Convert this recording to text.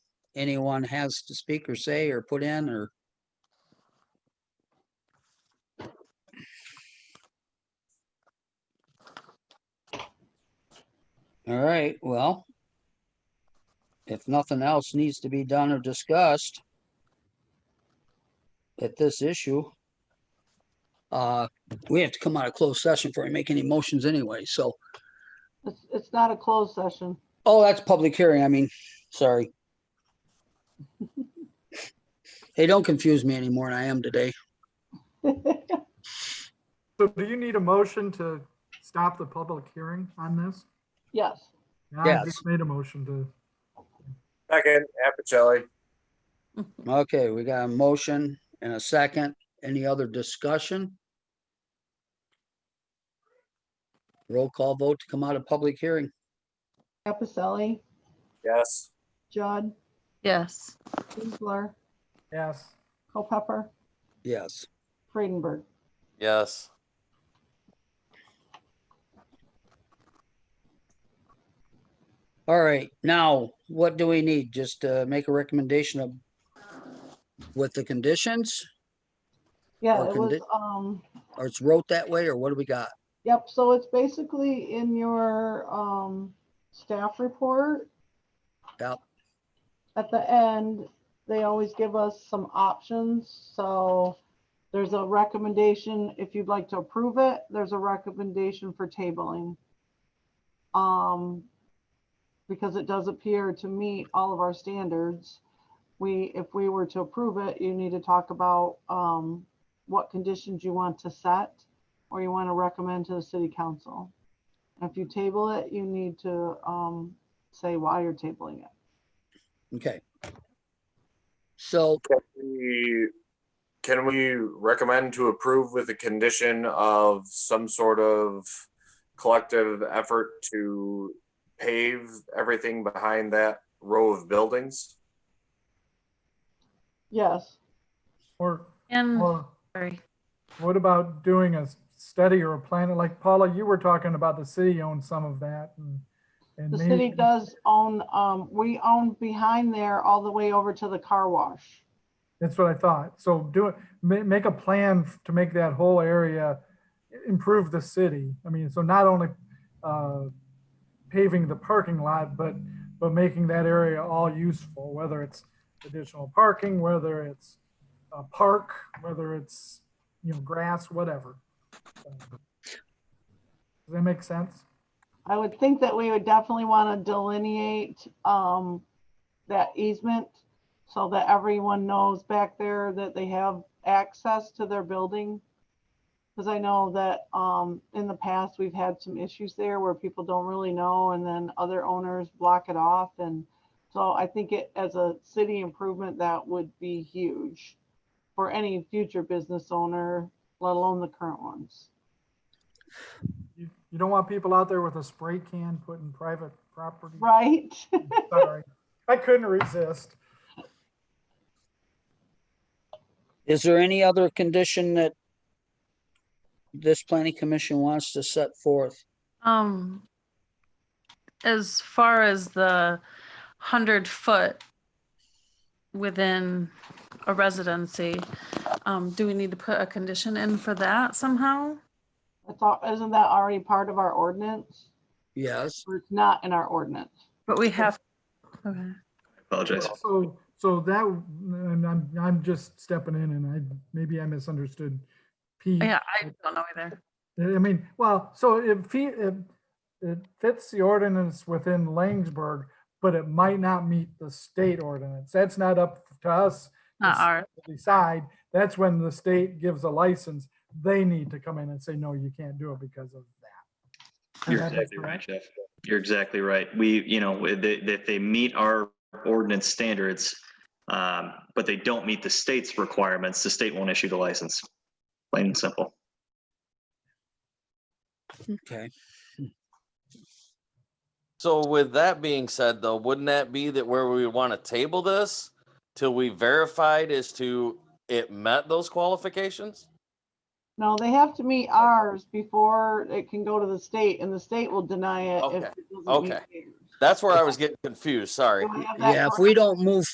anyone has to speak or say or put in or? All right, well. If nothing else needs to be done or discussed at this issue, uh, we have to come out of closed session before we make any motions anyway, so, It's, it's not a closed session. oh, that's public hearing, I mean, sorry. Hey, don't confuse me anymore, and I am today. So do you need a motion to stop the public hearing on this? Yes, Yeah, Yes. I just made a motion to, Second, Appicelli. Okay, we got a motion and a second. Any other discussion? Roll call vote to come out of public hearing. Appicelli, Yes. Judd, Yes. Kinsler, yes, Culpepper, Yes. Freidenberg. Yes. All right, now what do we need? Just uh make a recommendation of with the conditions Yeah, Or it can was, they- um, or it's wrote that way or what do we got? yep, so it's basically in your, um, staff report. Yep. At the end, they always give us some options, so there's a recommendation, if you'd like to approve it, there's a recommendation for tabling. Um, because it does appear to meet all of our standards. We, if we were to approve it, you need to talk about, um, what conditions you want to set or you want to recommend to the city council. If you table it, you need to, um, say why you're tabling it. Okay. So, Can we, can we recommend to approve with a condition of some sort of collective effort to pave everything behind that row of buildings? Yes. or, And, or sorry, what about doing a study or a plan? Like Paula, you were talking about the city owns some of that and. and The maybe- city does own, um, we own behind there all the way over to the car wash. That's what I thought. So do it, ma- make a plan f- to make that whole area i- improve the city. I mean, so not only uh, paving the parking lot, but, but making that area all useful, whether it's additional parking, whether it's a park, whether it's, you know, grass, whatever. Um, Does that make sense? I would think that we would definitely want to delineate, um, that easement so that everyone knows back there that they have access to their building. Because I know that, um, in the past, we've had some issues there where people don't really know and then other owners block it off. And so I think it, as a city improvement, that would be huge for any future business owner, let alone the current ones. You you don't want people out there with a spray can putting private property. Right? Sorry, I couldn't resist. is there any other condition that this planning commission wants to set forth? um, as far as the hundred foot within a residency, um, do we need to put a condition in for that somehow? I thought, isn't that already part of our ordinance? Yes, Or it's not in our ordinance? But we have, okay. Apologize. So, so that, and I'm, I'm just stepping in and I, maybe I misunderstood. P. yeah, I don't know either. I mean, well, so it fe- it, it fits the ordinance within Langsberg, but it might not meet the state ordinance. That's not up to us Not ours. to decide. That's when the state gives a license. They need to come in and say, no, you can't do it because of that. And You're that is exactly the- right, Jeff. You're exactly right. We, you know, if they, if they meet our ordinance standards, um, but they don't meet the state's requirements, the state won't issue the license. Plain and simple. okay. So with that being said, though, wouldn't that be that where we would want to table this till we verified as to it met those qualifications? No, they have to meet ours before it can go to the state and the state will deny it if Okay, it doesn't meet okay. theirs. That's where I was getting confused. Sorry. So we have that Yeah, if we don't move